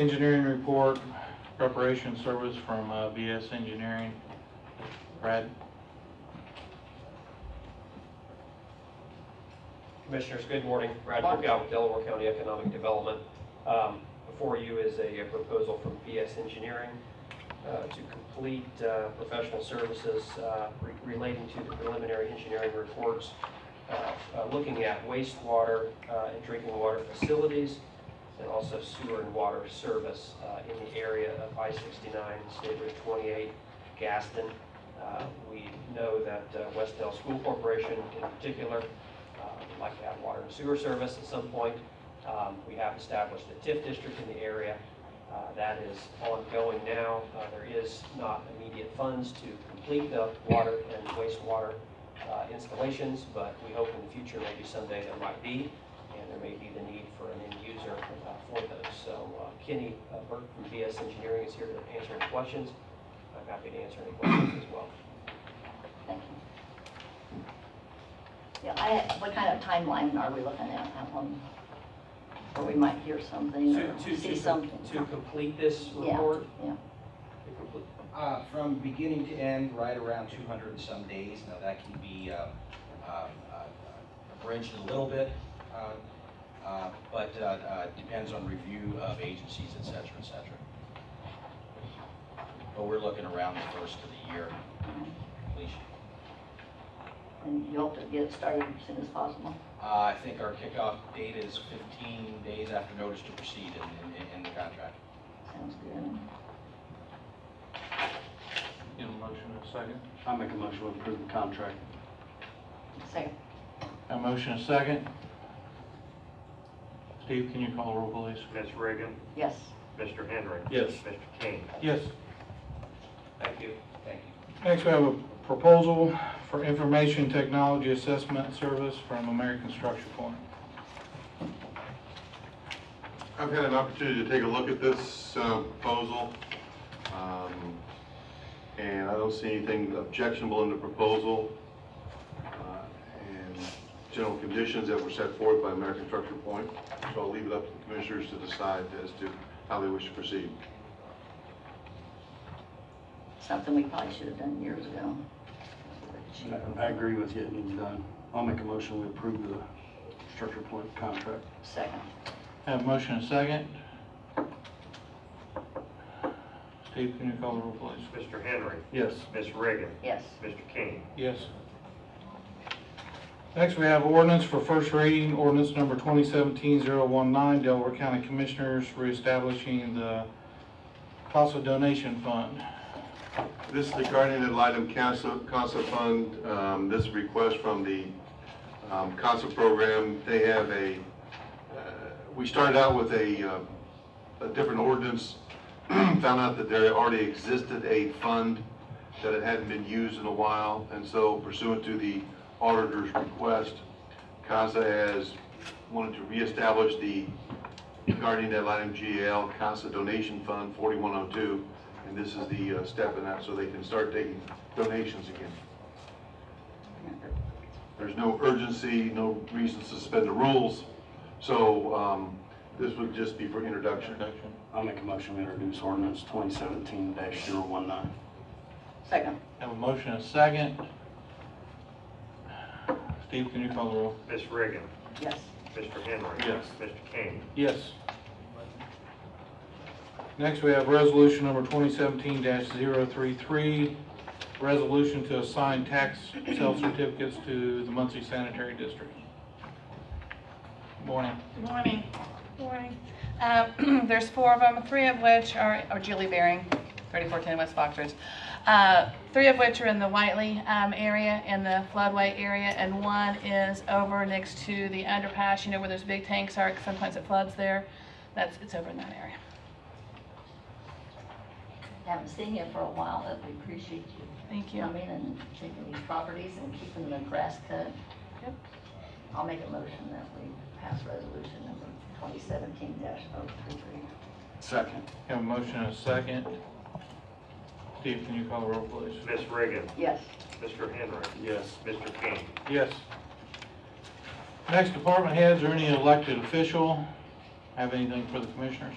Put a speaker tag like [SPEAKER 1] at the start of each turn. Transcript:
[SPEAKER 1] Engineering report, preparation service from uh, BS Engineering. Brad?
[SPEAKER 2] Commissioners, good morning. Brad Burkow with Delaware County Economic Development. Um, Before you is a a proposal from PS Engineering uh, to complete uh, professional services uh, re- relating to the preliminary engineering reports, uh, uh, looking at wastewater uh, and drinking water facilities, and also sewer and water service uh, in the area of I-69, State Route 28, Gaston. Uh, We know that uh, West Dell School Corporation in particular uh, We'd like to have water and sewer service at some point. Um, We have established a TIF district in the area. Uh, That is ongoing now. Uh, There is not immediate funds to complete the water and wastewater uh, installations, but we hope in the future, maybe someday there might be, and there may be the need for an end user uh, for those. So uh, Kenny uh, Burke from BS Engineering is here to answer any questions. I'm happy to answer any questions as well.
[SPEAKER 3] Thank you. Yeah, I, what kind of timeline are we looking at, that one? Or we might hear something
[SPEAKER 2] To-
[SPEAKER 3] or
[SPEAKER 2] to- to-
[SPEAKER 3] see something?
[SPEAKER 2] To complete this
[SPEAKER 3] Yeah,
[SPEAKER 2] report,
[SPEAKER 3] Yeah,
[SPEAKER 2] to complete
[SPEAKER 4] Uh, from beginning to end, right around two hundred and some days. Now, that can be, um, um, uh, abridged a little bit, uh, uh, but, uh, uh, depends on review of agencies, et cetera, et cetera. But we're looking around the first of the year completion.
[SPEAKER 3] and you hope to get it started as soon as possible?
[SPEAKER 4] Uh, I think our kickoff date is fifteen days after notice to proceed in, in, in the contract.
[SPEAKER 3] Sounds good.
[SPEAKER 1] Get a motion in a second.
[SPEAKER 5] I make a motion to approve the contract.
[SPEAKER 3] Second,
[SPEAKER 1] A motion in a second. Steve, can you call the roll, please?
[SPEAKER 6] Ms. Reagan,
[SPEAKER 3] yes.
[SPEAKER 6] Mr. Henry.
[SPEAKER 1] Yes.
[SPEAKER 6] Mr. King.
[SPEAKER 1] Yes.
[SPEAKER 2] Thank you.
[SPEAKER 4] Thank you.
[SPEAKER 1] Next, we have a proposal for information technology assessment service from American Structure Point.
[SPEAKER 7] I've had an opportunity to take a look at this uh, proposal, um, and I don't see anything objectionable in the proposal uh, and general conditions that were set forth by American Structure Point, so I'll leave it up to the commissioners to decide as to how they wish to proceed.
[SPEAKER 3] Something we probably should have done years ago.
[SPEAKER 5] I agree with you, it needs done. I'll make a motion to approve the structure point contract.
[SPEAKER 3] Second,
[SPEAKER 1] Have a motion in a second. Steve, can you call the roll, please?
[SPEAKER 6] Mr. Henry.
[SPEAKER 1] Yes.
[SPEAKER 6] Ms. Reagan.
[SPEAKER 3] yes.
[SPEAKER 6] Mr. King.
[SPEAKER 1] Yes. Next, we have ordinance for first reading, ordinance number 2017-019, Delaware County Commissioners reestablishing the CASA donation fund.
[SPEAKER 7] This is regarding the Litem Casa CASA Fund, um, this request from the um, CASA program. They have a, uh, we started out with a, uh, a different ordinance, found out that there already existed a fund, that it hadn't been used in a while, and so pursuant to the auditor's request, CASA has wanted to reestablish the regarding that item GAL, CASA donation fund 4102, and this is the uh, step in that, so they can start taking donations again. There's no urgency, no reason to suspend the rules, so um, this would just be for introduction.
[SPEAKER 5] I'll make a motion to introduce ordinance twenty seventeen 19
[SPEAKER 3] Second,
[SPEAKER 1] Have a motion and a second. Steve, can you call the roll?
[SPEAKER 6] Ms. Reagan.
[SPEAKER 3] yes.
[SPEAKER 6] Mr. Henry.
[SPEAKER 1] Yes.
[SPEAKER 6] Mr. King.
[SPEAKER 1] Yes. Next, we have resolution number 2017-033, resolution to assign tax sale certificates to the Muncie Sanitary District. Morning.
[SPEAKER 8] Good Morning. Morning. Uh, There's four of them, three of which are are Julie Baring, 3410 West Fox Ridge. Uh, Three of which are in the Whiteley um, area and the floodway area, and one is over next to the underpass, you know, where those big tanks are, 'cause sometimes it floods there. That's, it's over in that area.
[SPEAKER 3] Haven't seen you for a while, but we appreciate you
[SPEAKER 8] Thank you.
[SPEAKER 3] coming and taking these properties and keeping the grass cut.
[SPEAKER 8] Yep.
[SPEAKER 3] I'll make a motion that we pass resolution number twenty seventeen dash oh three three.
[SPEAKER 5] Second.
[SPEAKER 1] Have a motion and a second. Steve, can you call the roll, please?
[SPEAKER 6] Ms. Reagan.
[SPEAKER 3] Yes.
[SPEAKER 6] Mr. Henry.
[SPEAKER 5] Yes.
[SPEAKER 6] Mr. King.
[SPEAKER 1] Yes. Next, department heads or any elected official have anything for the commissioners?